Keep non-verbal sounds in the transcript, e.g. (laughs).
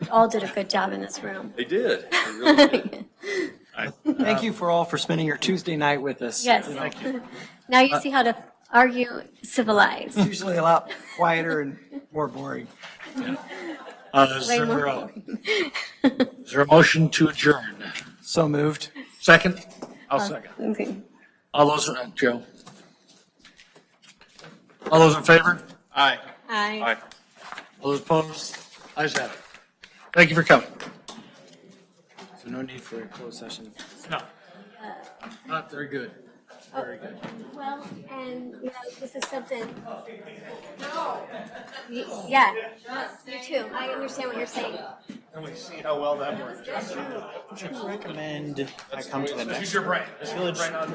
all did a good job in this room. They did. They (laughs) really did. Thank you for all for spending your Tuesday night with us. Yes. Now you see how to argue civilized. It's Usually a lot quieter and more boring. Uh, Is Way more there a- is there a motion to adjourn? So moved. Second? I'll Uh, second. Okay. All those, uh, Joe? All those in favor? Aye. Aye. Aye. All those opposed? Ayes have it. Thank you for coming. So no need for a closed session. No. Not very good. Very good. Well, and, you know, this is something. Y- Yeah, you too. I understand what you're saying. And we see how well that works. Recommend I come to the next. Use your brain.